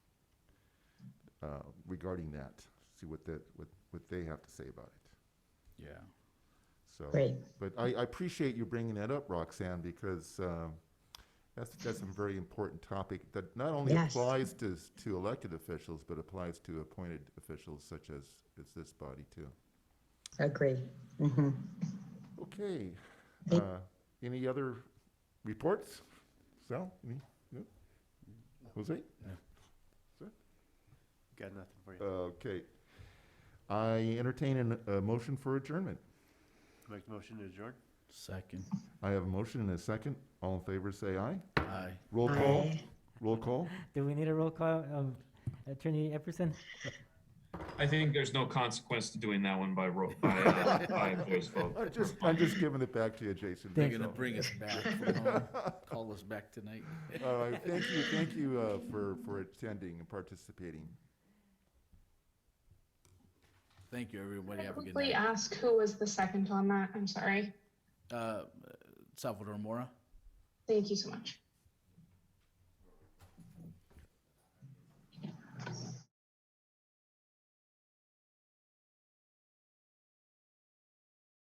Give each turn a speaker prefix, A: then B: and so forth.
A: uh, regarding that, see what that, what, what they have to say about it.
B: Yeah.
A: So,
C: Great.
A: but I, I appreciate you bringing that up, Roxanne, because um, that's that's a very important topic that not only
C: Yes.
A: applies to to elected officials, but applies to appointed officials such as as this body too.
C: Agree. hmm
A: Okay.
C: Thank-
A: Uh, any other reports? Sal, any? No? Jose?
D: Got nothing for you.
A: Okay. I entertain an, a motion for adjournment.
D: Make the motion to adjourn?
B: Second.
A: I have a motion and a second. All in favor, say aye.
B: Aye.
A: Roll call. Roll call.
E: Do we need a roll call of Attorney Epperson?
F: I think there's no consequence to doing that one by ro- by, uh, by voice vote.
A: I'm just, I'm just giving it back to you, Jason.
B: They're
E: Thank
B: gonna
A: So-
B: bring us back from home. Call us back tonight.
A: All right, thank you, thank you uh, for, for attending and participating.
B: Thank you, everybody.
G: Can I
B: Have a good
G: quickly
B: night.
G: ask who was the second on that? I'm sorry.
B: Uh, Salvador Mora.
G: Thank you so much.